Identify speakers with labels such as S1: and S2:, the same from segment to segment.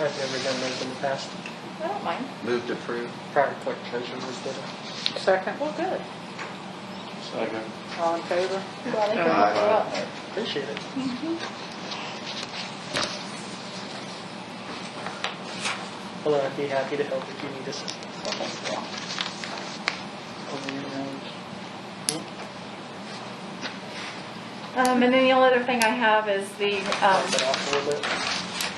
S1: I've never done those in the past.
S2: I don't mind.
S3: Move to approve.
S1: Prior clerk treasurer's did it.
S4: Second,
S2: Well, good.
S5: Second.
S4: all in favor?
S2: Well, they
S4: Aye.
S2: can go out there.
S1: Appreciate it. Well, I'd be happy to help if you need us.
S2: Well, thanks, Bill.
S1: Hmm?
S2: Um, and then the only other thing I have is the,
S1: Knock it
S2: um,
S1: off a little bit.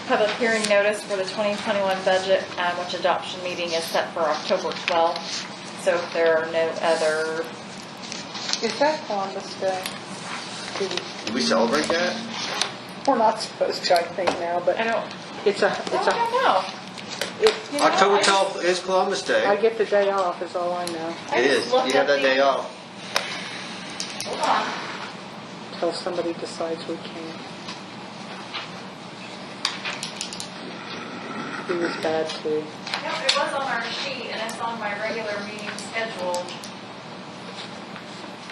S2: public hearing notice for the 2021 budget, um, which adoption meeting is set for October 12th. So if there are no other,
S4: Is that Columbus Day? Do we-
S3: Did we celebrate that?
S4: We're not supposed to, I think now,
S2: I
S4: but
S2: don't,
S4: it's a,
S2: I
S4: it's a,
S2: don't know.
S4: it-
S2: You know,
S3: October
S2: I just-
S3: 12th is Columbus
S4: I
S3: Day.
S4: get the day off is all I know,
S2: I
S3: It
S2: just
S3: is.
S2: looked
S3: You have
S2: at
S3: that
S2: the-
S3: day off.
S2: Hold on.
S4: until somebody decides we can. He was bad
S2: No,
S4: too.
S2: it was on our sheet and it's on my regular meeting schedule.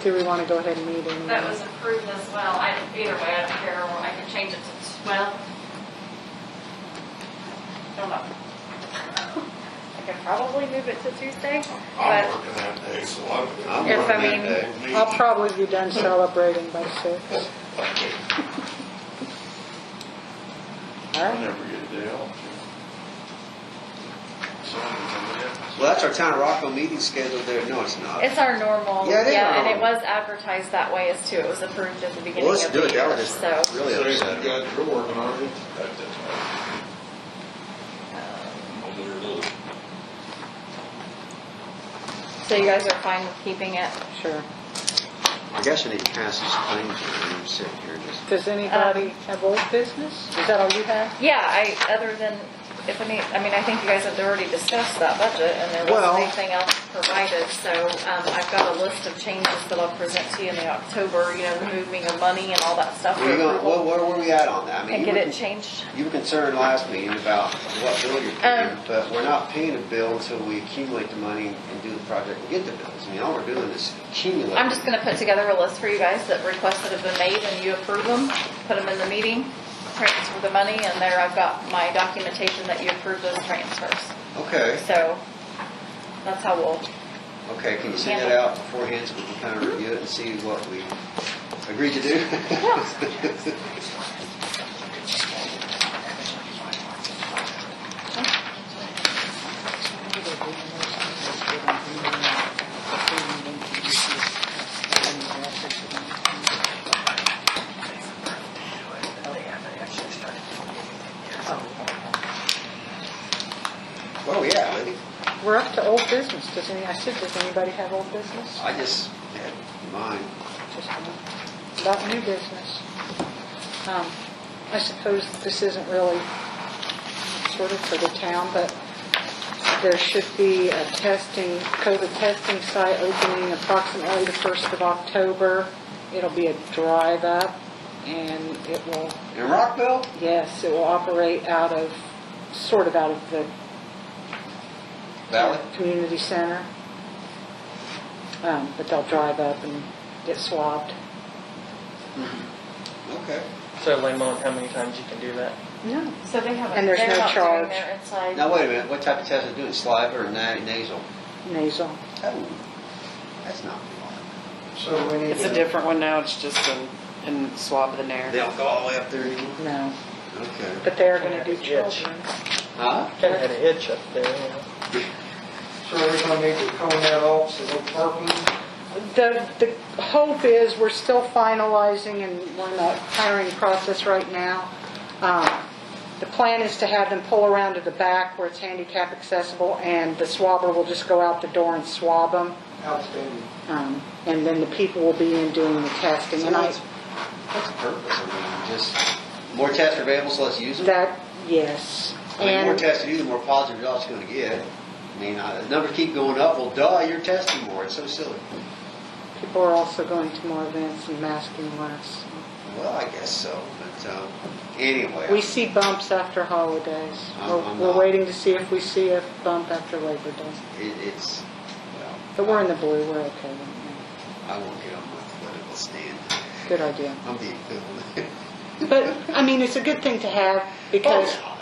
S4: Do we want to go ahead and meet him?
S2: That was approved as well. I, either way, I don't care, or I can change it to 12. Don't know. I could probably move it to Tuesday,
S5: I'm
S3: Oh.
S2: but
S5: working that day, so I'm, I'm
S2: Yes, I
S5: working that
S2: mean-
S5: day.
S4: I'll probably be done celebrating by six. All
S5: I
S4: right,
S5: never get a day off. So, I'm
S3: Well, that's our town of Rockville meeting scheduled there. No, it's not.
S2: it's our normal.
S3: Yeah, it is our
S2: And it
S3: normal.
S2: was advertised that way as too. It was approved at the
S3: Well,
S2: beginning
S3: let's
S2: of
S3: do
S2: the
S3: it. That
S2: year,
S3: would
S2: so.
S3: just really upset. me.
S5: got your working on it.
S2: Um, So you guys are fine with keeping it?
S4: sure.
S3: I guess I need to pass these claims. around. I'm sitting here just.
S4: Does anybody have old business? Is that all you have?
S2: Yeah, I, other than, if any, I mean, I think you guys had already discussed that budget, and there
S3: Well-
S2: wasn't anything else provided, so, um, I've got a list of changes that I'll present to you in the October, you know, the moving of money and all that stuff. for
S3: Where you going? Where,
S2: approval,
S3: where were we at on that? I mean,
S2: And
S3: you
S2: get
S3: were
S2: it
S3: con-
S2: changed.
S3: You were concerned last meeting about what bill you're paying,
S2: Um,
S3: but we're not paying a bill until we accumulate the money and do the project and get the bills. I mean, all we're doing is accumulating.
S2: I'm just gonna put together a list for you guys that requests that have been made, and you approve them, put them in the meeting, transfer the money, and there I've got my documentation that you approve those transfers.
S3: Okay,
S2: So, that's how we'll
S3: okay, can you send that out beforehand so we can kind of review it and see what we agreed to do? Where are we at, Libby?
S4: We're up to old business. Does any, I said, does anybody have old business?
S3: I just had mine.
S4: Just a minute. About new business. Um, I suppose this isn't really sort of for the town, but there should be a testing, COVID testing site opening approximately the 1st of October. It'll be a drive-up and it will
S3: In Rockville?
S4: Yes, it will operate out of, sort of out of the
S3: Valley?
S4: community center. Um, But they'll drive up and get swabbed.
S3: Okay.
S1: So Lamont, how many times you can do that?
S4: No.
S2: So they haven't.
S4: And there's
S2: they're
S4: no
S2: not doing
S4: charge.
S2: their inside.
S3: Now, wait a minute, what type of test are they doing, saliva or na- nasal?
S4: Nasal.
S3: Oh, that's not good.
S5: So we need
S6: It's a
S5: to,
S6: different one now, it's just in, in swab of the
S3: They
S6: nair.
S3: don't go all the way up there anymore?
S4: No.
S3: Okay.
S4: But they are going to do
S1: Yeah.
S4: children.
S3: Huh?
S1: Kind of had a itch up there, you know.
S5: so we're gonna need to cone that off, so no parking.
S4: The, the hope is, we're still finalizing and we're in the hiring process right now. Um, The plan is to have them pull around to the back where it's handicap accessible and the swabber will just go out the door and swab them.
S5: Outstanding.
S4: Um, And then the people will be in doing the testing. And I,
S3: What's what's the purpose? I mean, just more tests are available, so let's use them?
S4: that, yes.
S3: I mean, the more
S4: And,
S3: tests you do, the more positive results you're gonna get. I mean, uh, the numbers keep going up, well, duh, you're testing more, it's so silly.
S4: people are also going to more events and masking less.
S3: Well, I guess so, but, um, anyway.
S4: We see bumps after holidays.
S3: I'm-
S4: We're-
S3: I'm
S4: We're
S3: not-
S4: waiting to see if we see a bump after Labor Day.
S3: It, it's, well.
S4: But we're in the blue, we're okay right now.
S3: I won't get on my political stand.
S4: Good idea.
S3: I'm being filmed.
S4: But, I mean, it's a good thing to have because
S3: Oh,